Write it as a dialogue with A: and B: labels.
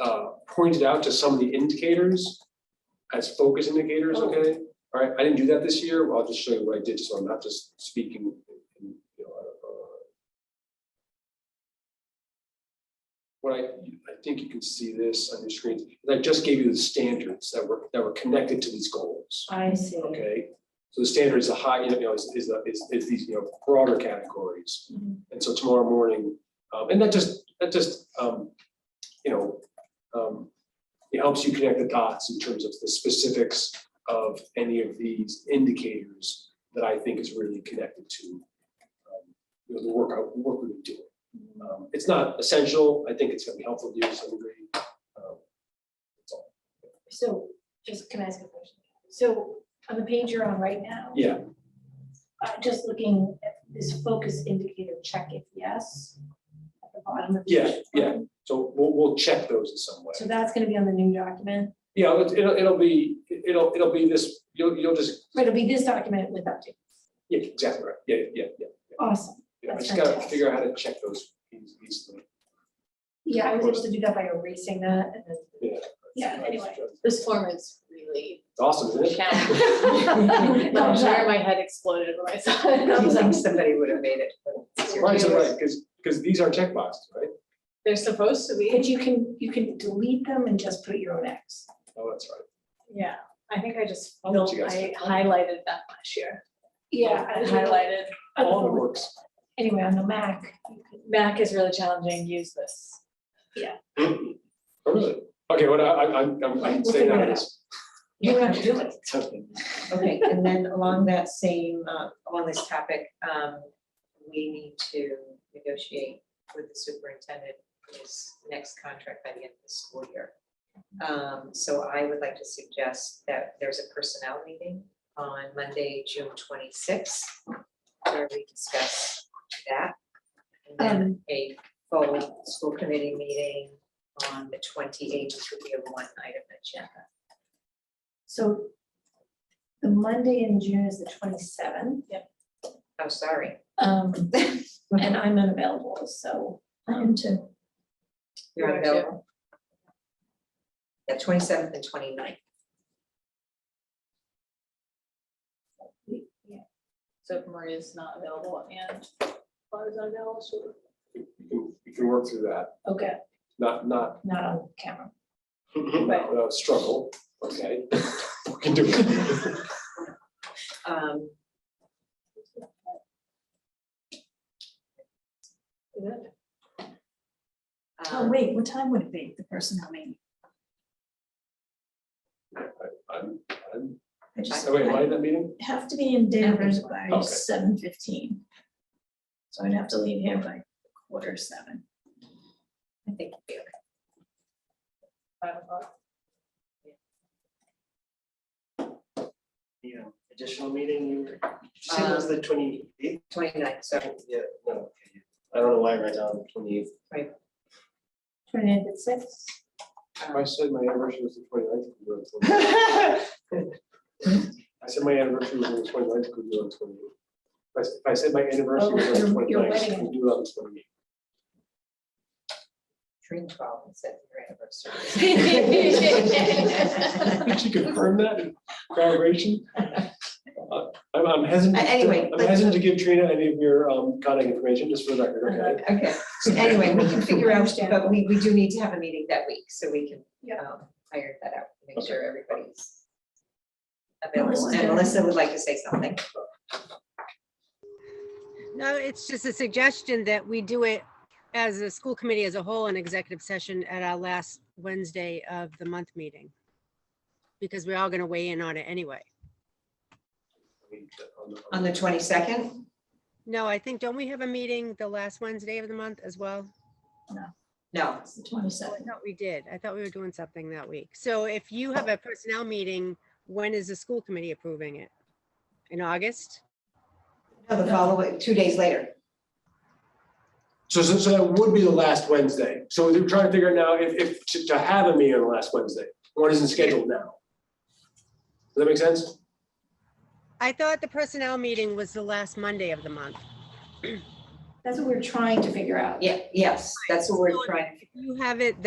A: uh, pointed out to some of the indicators as focus indicators,
B: Oh.
A: okay? All right, I didn't do that this year, well, I'll just show you what I did, so I'm not just speaking, you know, out of, uh, what I, I think you can see this on your screens, I just gave you the standards that were, that were connected to these goals,
B: I see.
A: okay? So the standard is a high, you know, is, is, the- is, is these, you know, broader categories.
B: Mhm.
A: And so tomorrow morning, um, and that just, that just, um, you know, um, it helps you connect the dots in terms of the specifics of any of these indicators that I think is really connected to, um, you know, the work, I- the work we've been doing. Um, it's not essential. I think it's gonna be helpful to you to some degree. Um, that's all.
B: So, just can I ask a question? So, on the page you're on right now.
A: Yeah,
B: uh, just looking at this focus indicator, check if yes. At the bottom of.
A: Yeah,
B: each
A: yeah.
B: one.
A: so we'll, we'll check those in some way.
B: So that's gonna be on the new document,
A: Yeah, it'll, it'll- it'll be, it'll, it'll be this, you'll, you'll just,
B: but it'll be this document with update.
A: yeah, exactly right. Yeah, yeah, yeah.
B: Awesome.
A: Yeah, I
B: That's
A: just gotta
B: fantastic.
A: figure out how to check those keys easily.
B: Yeah, I was able to do that by erasing that and then.
A: Yeah.
B: Yeah, anyway.
C: This form is really
A: It's Awesome, isn't it?
C: challenging. I'm sure my head exploded when I saw it. I was like,
D: somebody would have made it.
A: Right, so right, because, because these are checkboxes, right?
C: They're supposed to be.
B: But you can, you can delete them and just put your own X.
A: Oh, that's right.
C: Yeah, I think I just,
A: I'll let
C: filled-
A: you guys
C: I
A: pick one.
C: highlighted that last year.
B: Yeah.
C: I highlighted.
A: All the works.
B: Anyway, on the Mac, you could-
C: Mac is really challenging. Use this.
A: Oh, really? Okay, what I, I, I'm, I'm- I'm saying
B: We'll figure
A: that
B: it
A: is.
B: you don't have to do it.
A: something.
D: Okay, and then along that same, uh, along this topic, um, we need to negotiate with the superintendent his next contract by the end of the school year. Um, so I would like to suggest that there's a personnel meeting on Monday, June twenty-sixth, where we discuss that. And then a full school committee meeting on the twenty-eighth, which will be a one-item agenda.
B: So the Monday in June is the twenty-seventh.
D: I'm Oh, sorry,
B: Um, and I'm unavailable, so. um, I am too.
D: you're
C: Right,
D: unavailable. Yeah, twenty-seventh and 29th.
C: So if Maria's not available and Laura's not available, so
A: You can, you can work through that,
B: Okay,
A: not, not,
B: not on camera.
A: not without struggle, okay? We can do it.
D: Um,
E: Oh,
C: Oh,
D: um,
E: wait, what time would it be, the personnel meeting?
A: I'm, I'm,
E: I just
A: oh, wait, am I in that meeting?
E: have to be in Danvers by
A: Okay.
E: seven fifteen. So I'd have to leave here by quarter seven.
D: I think we are.
C: five o'clock.
F: Yeah, additional meeting, you were, did you say it was the twenty eighth?
D: 29th. sorry,
F: Uh, Yeah, no, okay. I don't know why right now, twenty eighth.
B: Twenty-eighth at six.
A: I said my anniversary was the 29th. I said my anniversary was on the 29th. could do it on the 28th. If I s- If I said my anniversary was on the
B: Oh, your- your
A: 29th.
B: wedding.
A: could do it on the 28th.
D: June twelve instead of your anniversary.
A: Did you confirm that in graduation? Uh, I'm I'm hesitant,
D: Uh, anyway,
A: I'm
D: but-
A: hesitant to give Trina any of your um, contact information, just for the record, okay?
D: Okay, anyway, we can figure out,
B: Understand.
D: but we, we do need to have a meeting that week, so we can
B: Yeah.
D: um, iron that out, make
A: Okay.
D: sure everybody's available,
E: Melissa's
D: and
E: gonna-
D: Melissa would like to say something.
G: No, it's just a suggestion that we do it as a school committee as a whole in executive session at our last Wednesday of the month meeting. Because we're all going to weigh in on it anyway.
A: uh,
D: On the twenty-second,
G: No, I think, don't we have a meeting the last Wednesday of the month as well?
D: no,
E: It's the twenty
G: Oh, I
E: seventh.
G: thought we did. I thought we were doing something that week. So if you have a personnel meeting, when is the school committee approving it? In August?
D: no, the following, two days later.
A: So, so so that would be the last Wednesday. So they're trying to figure out now if, if, to- to have a meeting on the last Wednesday. One isn't scheduled now. Does that make sense?
G: I thought the personnel meeting was the last Monday of the month.
B: That's what we're trying to figure out.
D: Yeah, yes, that's what we're
G: So
D: trying to
G: If you have it